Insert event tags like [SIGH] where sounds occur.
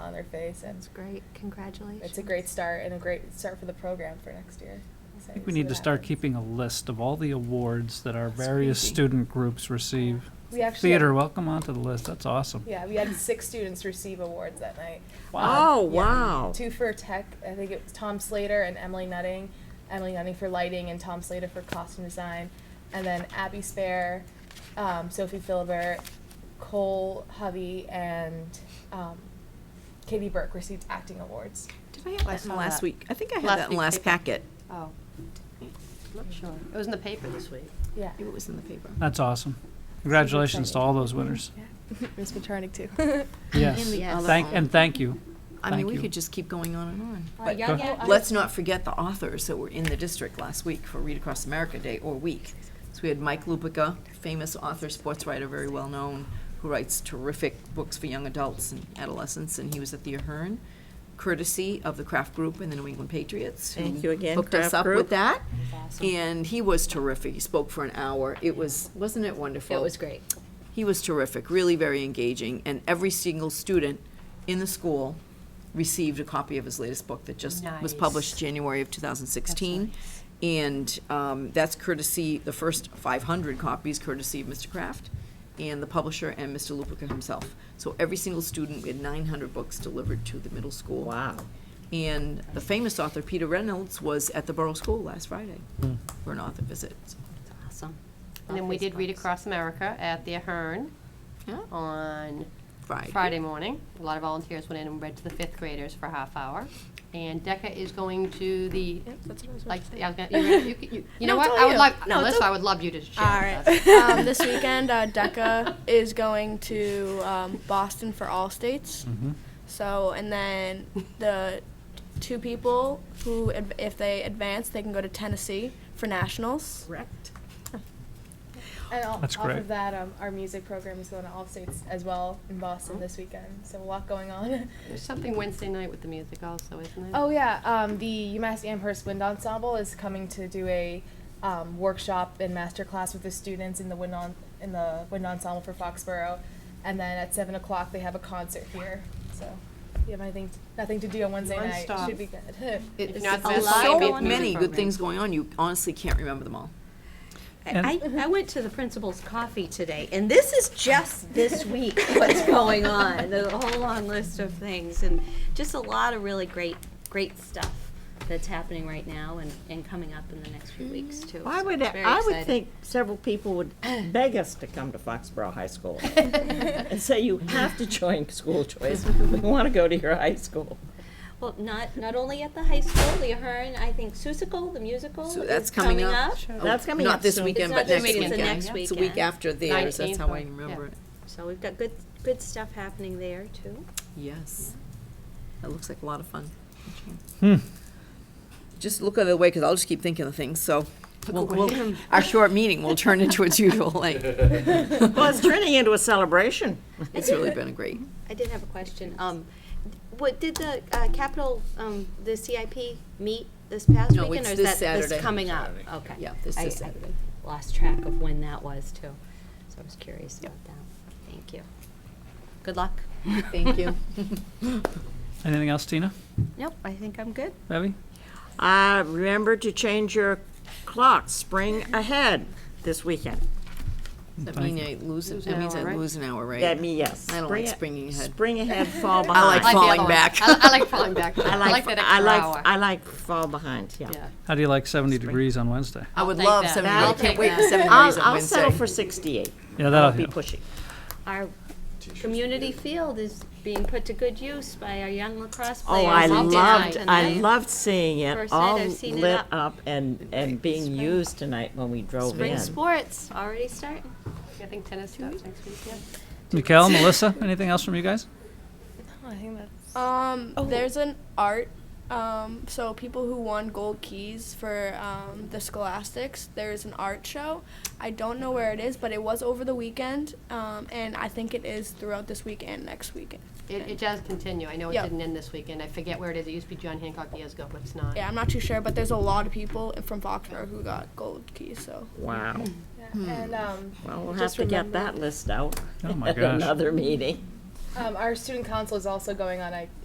our face, and That's great, congratulations. it's a great start and a great start for the program for next year. I think we need to start keeping a list of all the awards that our That's various crazy. student groups receive. We actually Theater, had- welcome onto the list, that's awesome. Yeah, we had six students receive awards that night. Um, Wow. Oh, yeah. wow. Two for tech. I think it was Tom Slater and Emily Nutting. Emily Nutting for lighting and Tom Slater for costume design. And then Abby Spare, um, Sophie Philibert, Cole Hovey, and um, Katie Burke received acting awards. Did I have I that in saw last that. week? I think I Last had that in week's last paper. packet. Oh, not sure. It was in the paper this week. Yeah. [LAUGHS] It was in the paper. That's awesome. Congratulations to all those winners. yeah. Miss Paternic, too. Yes, And the Yes. other thank, au- and thank you. I mean, thank we you. could just keep going on and on. But young go- adult- Let's not forget the authors that were in the district last week for Read Across America Day or Week. So we had Mike Lupica, famous author, sports writer, very well known, who writes terrific books for young adults and adolescents, and he was at the Ahern, courtesy of the Kraft Group and the New England Patriots. who Thank you again, Hooked us Kraft up Group. with that, awesome. and he was terrific. He spoke for an hour. It was, wasn't it wonderful? It was great. He was terrific, really very engaging, and every single student in the school received a copy of his latest book that just was Nice. published January of 2016. And um, that's courtesy, the first 500 copies courtesy of Mr. Kraft and the publisher and Mr. Lupica himself. So every single student, we had 900 books delivered to the middle school. Wow. And the famous author Peter Reynolds was at the Borough School last Friday for an author visit. So, It's awesome. And then we did Read Facebooks. Across America at the Ahern yeah, on Friday. Friday morning. A lot of volunteers went in and read to the fifth graders for a half hour. And Decca is going to the, like, [LAUGHS] yeah, I was gonna- you, you- you- you know No, what? tell I would you. love, No, Melissa, tell- I would love you to share All with us. right. [LAUGHS] um, this weekend, uh, DECA is going to um, Boston for all states. Mm-hmm. Hmm. So, and then the two people who, ad- if they advance, they can go to Tennessee for nationals. Correct. And all, That's off great. of that, um, our music program is going to all states as well in Boston this weekend. So a lot going on. There's something Wednesday night with the music also, isn't [LAUGHS] there? Oh yeah, um, the UMass Amherst Wind Ensemble is coming to do a um, workshop and master class with the students in the wind on, in the wind ensemble for Foxborough, and then at seven o'clock they have a concert here. So if you have anything nothing to do on Wednesday night, Non-stop. should be good. [LAUGHS] If It's not it's the live so music many program. good things going on, you honestly can't remember them all. And- I, Mm-hmm. I went to the principal's coffee today, and this is just this week what's going on. There's a whole long list of things, and just a lot of really great, great stuff that's happening right now and, and coming up in the next few weeks, Mm-hmm. too. I So would, it's very I would exciting. think several people would beg us to come to Foxborough High School and say, you have to join school choice. We want to go to your high school. Well, not, not only at the high school, the Ahern, I think Susical, the musical, So is that's coming coming up. up. Oh, That's coming Not up this soon. weekend, It's but not this next weekend, weekend. it's the next It's the week weekend. after theirs, that's how I 19th, remember yeah. it. So we've got good, good stuff happening there, too. Yes. That looks like a lot of fun. Hmm. Just look other way, because I'll just keep thinking of things, so we'll- we'll- our short meeting will turn into its usual [LAUGHS] length. Well, it's turning into a celebration. [LAUGHS] It's really been a great, I did have a question. Um, what, did the, uh, capital, um, the CIP meet this past No, it's weekend? or is this that Saturday. coming up? Okay. yeah, this I- is I Saturday. Lost track of when that was too, so I was curious about that. Thank you. Good luck. Thank you. Anything else, Tina? Nope, I think I'm good. Debbie? Uh, remember to change your clock, spring ahead this weekend. That Thank means I lose, it- Lose that an means hour, I right? lose an hour, right? That me, yes. I don't Spring like a- spring ahead. Spring ahead, fall I behind. like the falling other one. back. I, I like falling [LAUGHS] back. I like that I extra like, hour. I like fall behind, yeah. Yeah. How do you like 70 degrees on Wednesday? I would take love that. seven, I'll I can't take wait for that. seven days I'll, on I'll settle Wednesday. for sixty-eight. Yeah, that'll I'll be help. pushing. [LAUGHS] Our community field is being put to good use by our young lacrosse Oh, players. I all loved, I tonight. loved seeing it First night all I've seen it lit up. up and, and being used tonight when we drove Spring in. sports already starting. I think tennis starts next week, yeah. [LAUGHS] Mikel, Melissa, anything else from you guys? I think that's Um, Oh. There's an art. Um, so people who won gold keys for um, the Scholastics, there's an art show. I don't know where it is, but it was over the weekend, um, and I think it is throughout this week and next weekend. It, it does continue. I know it Yeah. didn't end this weekend. I forget where it is. It used to be John Hancock years ago, but it's not. Yeah, I'm not too sure, but there's a lot of people from Foxborough who got gold keys. So Hmm. Wow, yeah. and um, well, we'll have Just to get remember- that list out Oh, my [LAUGHS] at gosh. another meeting. um, our student council is also going on a